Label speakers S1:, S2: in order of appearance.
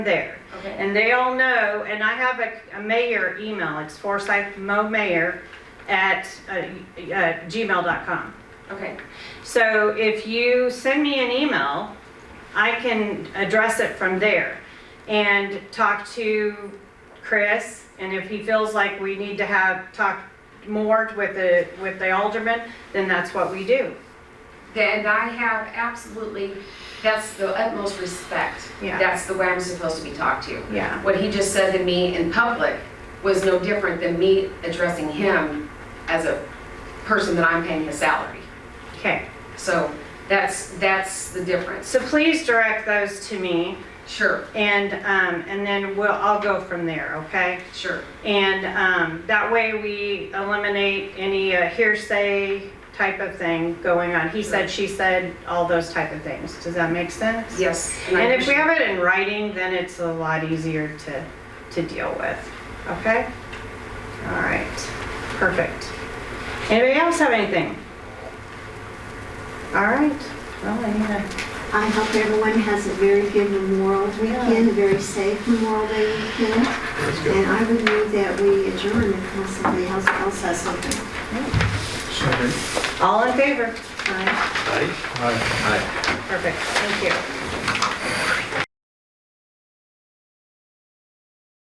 S1: there.
S2: Okay.
S1: And they all know, and I have a, a mayor email, it's uh, forsythmomayor@gmail.com.
S2: Okay.
S1: So if you send me an email, I can address it from there and talk to Chris. And if he feels like we need to have, talk more with the, with the alderman, then that's what we do.
S2: And I have absolutely, that's the utmost respect.
S1: Yeah.
S2: That's the way I'm supposed to be talked to.
S1: Yeah.
S2: What he just said to me in public was no different than me addressing him as a person that I'm paying his salary.
S1: Okay,
S2: So that's, that's the difference.
S1: so please direct those to me
S2: Sure,
S1: and, um, and then we'll, I'll go from there, okay?
S2: sure.
S1: And um, that way we eliminate any uh, hearsay type of thing going on. He said, she said, all those type of things. Does that make sense?
S2: Yes. I
S1: And if we
S2: appreciate-
S1: have it in writing, then it's a lot easier to, to deal with, okay? All right, perfect. Anybody else have anything? All right, well, I need
S3: I hope everyone has a very good Memorial Weekend, a very safe Memorial Day weekend. And I would move that we adjourn unless somebody else else has something.
S4: Second.
S1: a- all in favor?
S3: Aye.
S4: Aye. Aye.
S1: Perfect, thank you.